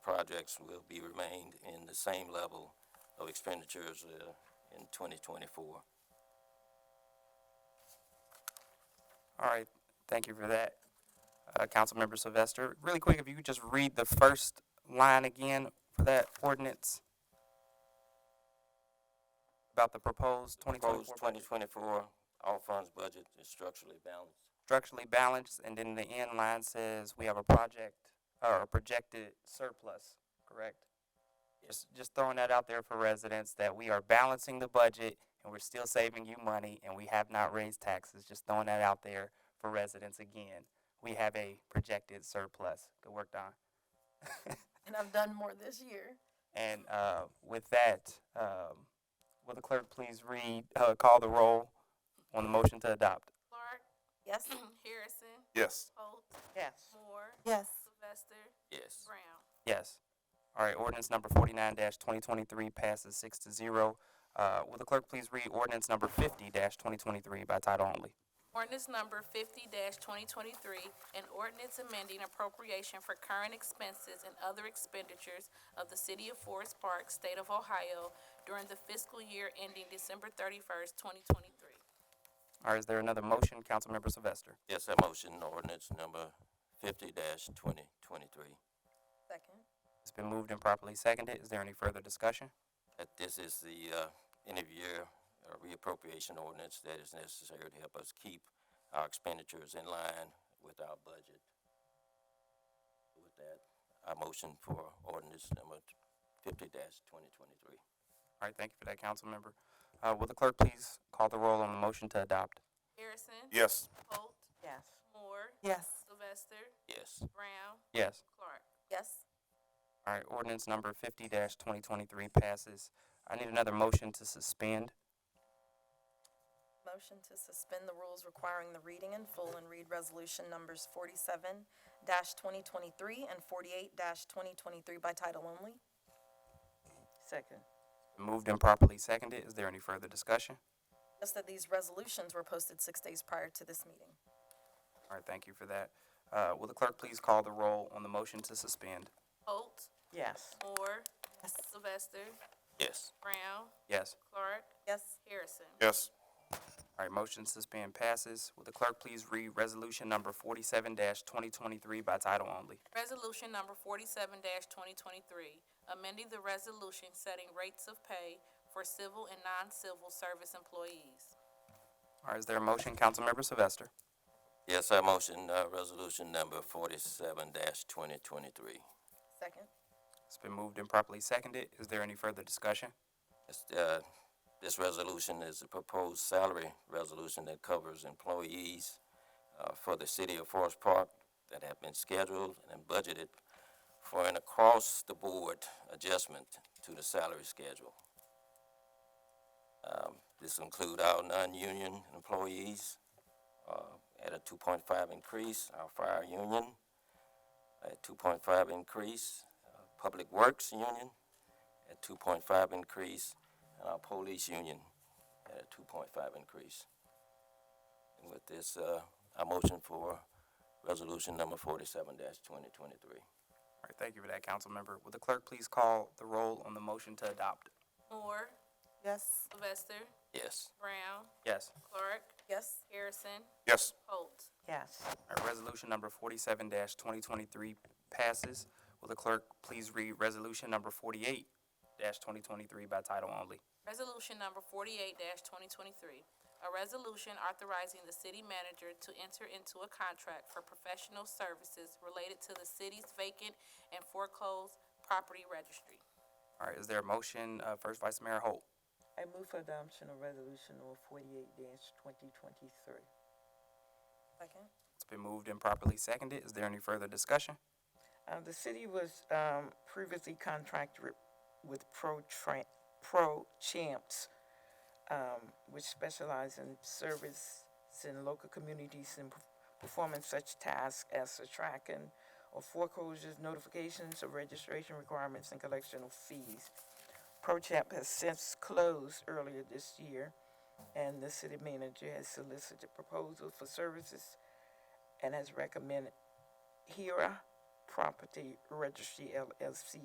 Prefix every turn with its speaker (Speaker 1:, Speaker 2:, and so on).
Speaker 1: projects will be remained in the same level of expenditures uh, in 2024.
Speaker 2: All right, thank you for that, uh, Councilmember Sylvester. Really quick, if you could just read the first line again for that ordinance about the proposed twenty
Speaker 1: Proposed
Speaker 2: twenty-four budget,
Speaker 1: 2024 all funds budget is structurally balanced.
Speaker 2: structurally balanced, and then the end line says we have a project or a projected surplus, correct? Just, just throwing that out there for residents that we are balancing the budget and we're still saving you money and we have not raised taxes. Just throwing that out there for residents again. We have a projected surplus. Good work, Don.
Speaker 3: and I've done more this year.
Speaker 2: And uh, with that, um, will the clerk please read, uh, call the roll on the motion to adopt?
Speaker 4: Clark,
Speaker 3: Yes.
Speaker 4: Harrison,
Speaker 5: Yes.
Speaker 4: Holt,
Speaker 2: Yes.
Speaker 4: Moore,
Speaker 3: Yes.
Speaker 4: Sylvester,
Speaker 1: Yes.
Speaker 4: Brown.
Speaker 2: Yes. All right, ordinance number forty-nine twenty twenty-three passes six to zero. Uh, will the clerk please read ordinance number fifty twenty twenty-three by title only?
Speaker 4: Ordinance number fifty twenty twenty-three, an ordinance amending appropriation for current expenses and other expenditures of the city of Forest Park, state of Ohio during the fiscal year ending December thirty-first, twenty twenty-three.
Speaker 2: All right, is there another motion, Councilmember Sylvester?
Speaker 1: Yes, that motion, ordinance number 50-2023.
Speaker 3: Second.
Speaker 2: It's been moved and properly seconded. Is there any further discussion?
Speaker 1: That this is the uh, end of year uh, reappropriation ordinance that is necessary to help us keep our expenditures in line with our budget. With that, I motion for ordinance number 50-2023.
Speaker 2: All right, thank you for that, Councilmember. Uh, will the clerk please call the roll on the motion to adopt?
Speaker 4: Harrison,
Speaker 5: Yes.
Speaker 4: Holt,
Speaker 3: Yes.
Speaker 4: Moore,
Speaker 3: Yes.
Speaker 4: Sylvester,
Speaker 1: Yes.
Speaker 4: Brown,
Speaker 2: Yes.
Speaker 4: Clark.
Speaker 3: Yes.
Speaker 2: All right, ordinance number fifty twenty twenty-three passes. I need another motion to suspend.
Speaker 3: Motion to suspend the rules requiring the reading in full and read resolution numbers forty-seven dash twenty twenty-three and forty-eight dash twenty twenty-three by title only. Second.
Speaker 2: Moved and properly seconded. Is there any further discussion?
Speaker 3: Just that these resolutions were posted six days prior to this meeting.
Speaker 2: All right, thank you for that. Uh, will the clerk please call the roll on the motion to suspend?
Speaker 4: Holt,
Speaker 3: Yes.
Speaker 4: Moore, Sylvester,
Speaker 1: Yes.
Speaker 4: Brown,
Speaker 2: Yes.
Speaker 4: Clark,
Speaker 3: Yes.
Speaker 4: Harrison.
Speaker 5: Yes.
Speaker 2: All right, motion to suspend passes. Will the clerk please read resolution number forty-seven twenty twenty-three by title only?
Speaker 4: Resolution number forty-seven twenty twenty-three, amending the resolution setting rates of pay for civil and non-civil service employees.
Speaker 2: All right, is there a motion, Councilmember Sylvester?
Speaker 1: Yes, I motion uh, resolution number 47-2023.
Speaker 3: Second.
Speaker 2: It's been moved and properly seconded. Is there any further discussion?
Speaker 1: It's, uh, This resolution is a proposed salary resolution that covers employees uh, for the city of Forest Park that have been scheduled and budgeted for an across-the-board adjustment to the salary schedule. Um, This include our non-union employees uh, at a 2.5 increase, our fire union at 2.5 increase, uh, Public Works union at two point five increase, and our police union at a two point five increase. And with this, uh, I motion for resolution number forty-seven twenty twenty-three.
Speaker 2: All right, thank you for that, Councilmember. Will the clerk please call the roll on the motion to adopt?
Speaker 4: Moore,
Speaker 3: Yes.
Speaker 4: Sylvester,
Speaker 1: Yes,
Speaker 4: Brown,
Speaker 2: Yes.
Speaker 4: Clark,
Speaker 3: Yes.
Speaker 4: Harrison,
Speaker 5: Yes.
Speaker 4: Holt.
Speaker 3: Yes.
Speaker 2: All right, resolution number forty-seven twenty twenty-three passes. Will the clerk please read resolution number forty-eight twenty twenty-three by title only?
Speaker 4: Resolution number forty-eight twenty twenty-three, a resolution authorizing the city manager to enter into a contract for professional services related to the city's vacant and foreclosed property registry.
Speaker 2: All right, is there a motion, uh, First Vice Mayor Holt?
Speaker 6: I move for adoption of resolution number forty-eight dash twenty twenty-three.
Speaker 3: Second.
Speaker 2: It's been moved and properly seconded. Is there any further discussion?
Speaker 6: Um, the city was, um, previously contracted with- with Pro Tran, Pro Champs, um, which specialize in service in local communities and perf- performing such tasks as the tracking of foreclosures, notifications of registration requirements, and collection of fees. ProChamp has since closed earlier this year, and the city manager has solicited proposals for services and has recommended Hira Property Registry LLC